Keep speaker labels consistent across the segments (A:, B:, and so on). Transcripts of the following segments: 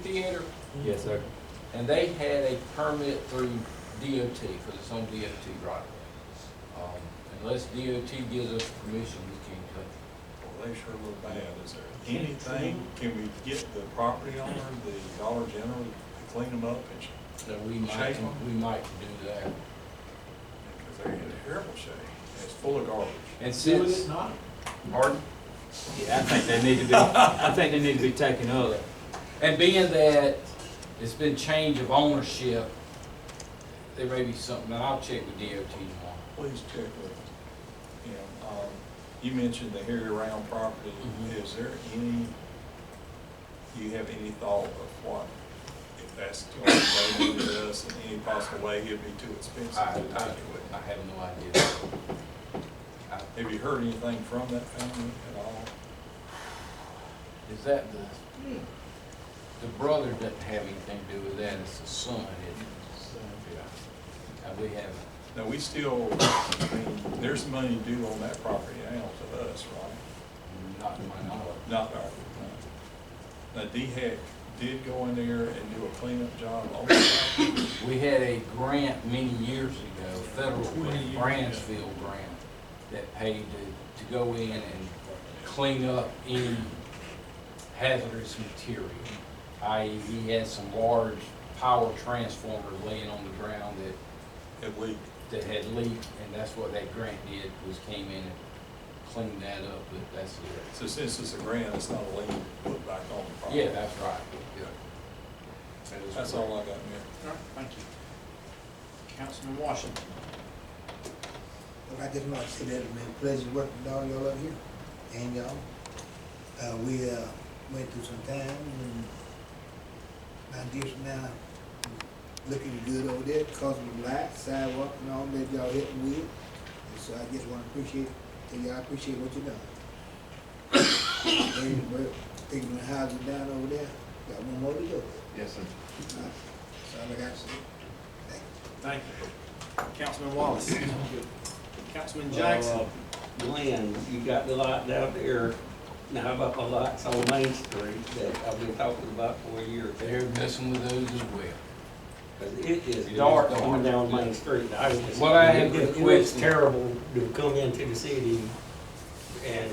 A: correct?
B: Yes, sir.
A: And they had a permit through DOT, because it's on DOT right away. Um, Unless DOT gives us permission, we can't touch it.
C: Well, they sure look bad. Is there anything, can we get the property owner, the Dollar General, to clean them up? It's-
A: So we might,
C: Shake 'em.
A: we might do that.
C: Because they're in terrible shape. It's full of garbage.
A: And since,
D: not.
A: pardon?
B: Yeah, I think they need to be, I think they need to be taken up.
A: And being that it's been change of ownership, there may be something, and I'll check with DOT tomorrow.
C: Please check with him. Um, You mentioned the Harry Round property.
A: Mhm.
C: Is there any, do you have any thought of what, if that's going to be with us in any possible way, it'd be too expensive
A: I,
C: to
A: I,
C: take it with?
A: I have no idea. I-
C: Have you heard anything from that family at all?
A: Is that the, the brother doesn't have anything to do with that, it's the son, isn't it? Yeah. And we have,
C: No, we still, I mean, there's money due on that property now to us, right?
A: not to my knowledge.
C: Not our, now, DHEC did go in there and do a cleanup job on that.
A: We had a grant many years ago, federal
C: Twenty
A: grant,
C: years
A: Bransfield grant, that paid to, to go in and clean up any hazardous material. I.e., we had some large power transformer laying on the ground that
C: It leaked.
A: that had leaked, and that's what that grant did, was came in and cleaned that up, but that's it.
C: So since it's a grant, it's not a lien put back on the property.
A: Yeah, that's right, yeah. That is
C: That's
A: correct.
C: all I got, Mayor.
D: All right, thank you. Councilman Washington.
E: But I just want to say that it's been a pleasure working with all y'all up here and y'all. Uh, we, uh, went through some time and now just now looking good over there, cause of the light, sidewalk and all that y'all helping with. And so I just want to appreciate, tell y'all I appreciate what you done. Taking the work, taking the houses down over there, got one more to go.
F: Yes, sir.
E: That's all I got to say. Thank
D: Thank
E: you.
D: you. Councilman Wallace. Councilman Jackson.
G: Uh, Glenn, you got the light down there, now how about the lights on Main Street that I've been talking about for a year or two?
A: They're messing with those as well.
G: Cause it is
A: It is
G: dark
A: dark.
G: coming down Main Street, I was.
A: What I had
G: it- it-
A: requested-
G: It's terrible to come into the city and,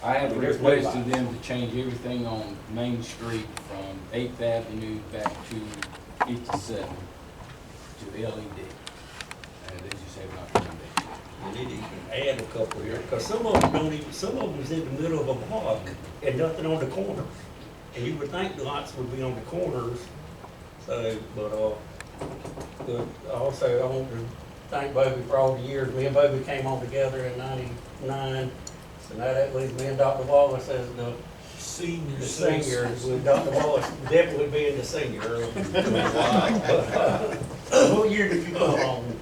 A: I have
G: There's no
A: requested
G: lights.
A: them to change everything on Main Street from Eighth Avenue back to fifty-seven to LED. And Uh, they just have not done that.
G: and it even add a couple here, cause some of them don't even, some of them is in the middle of a block and nothing on the corners. And you would think the lights would be on the corners, so, but, uh, but also I want to thank Bobby for all the years, me and Bobby came on together in ninety-nine. So now that leaves me and Dr. Wallace as the
D: Senior.
G: the senior, with Dr. Wallace definitely being the senior. uh, What year did you come on?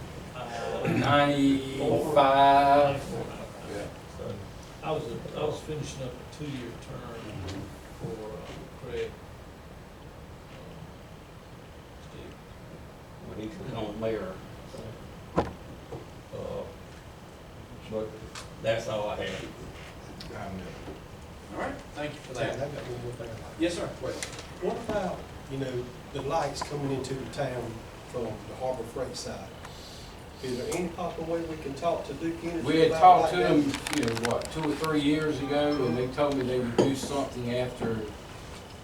A: Ninety-five, yeah.
H: So, I was, I was finishing up a two-year term for uh, Craig. um, Steve.
G: when he was on mayor. Uh, But that's all I have.
D: All right, thank you for that.
I: I've got one more thing I'd like.
D: Yes, sir.
I: What about, you know, the lights coming into the town from the Harbor Freight side? Is there any possible way we can talk to Duke Energy?
A: We had
I: about
A: talked to
I: like
A: them,
I: that?
A: you know, what, two or three years ago, and they told me they would do something after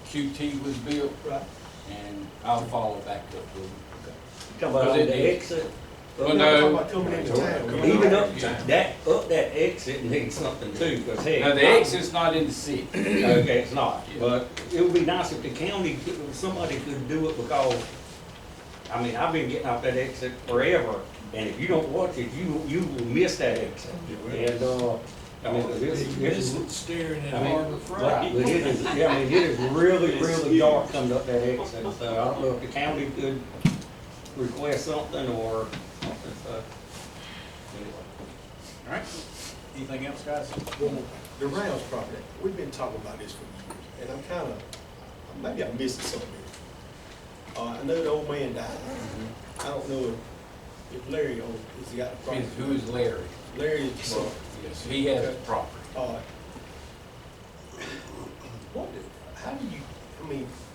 A: QT was built,
I: Right,
A: and I'll follow back up with them.
G: Come on,
A: Was it-
G: the exit,
A: Well,
I: talking
A: no,
I: about coming into town.
G: even up,
A: Yeah.
G: that, up that exit needs something too, because hey.
A: no, the exit's not in the city.
G: Okay, it's not,
A: Yeah.
G: but it would be nice if the county, could- if somebody could do it because, I mean, I've been getting off that exit forever, and if you don't watch it, you, you will miss that exit. And, uh, I mean, 'cause it's, it's,
H: Staring at
G: I mean,
H: Harbor
G: Right,
H: Freight.
G: but it is, yeah, I mean, it is really, really dark coming up that exit, so I don't know if the county could request something or something, so. anyway.
D: All right, anything else, guys?
I: Well, The Rounds property, we've been talking about this for years, and I'm kind of, maybe I'm missing something. Uh, I know the old man died. I don't know if- if Larry owns, has he got the property?
A: Mm-hmm. Is- Who is Larry?
I: Larry is the son.
A: Yes, he has property.
I: Uh, What, do- how do you, I mean,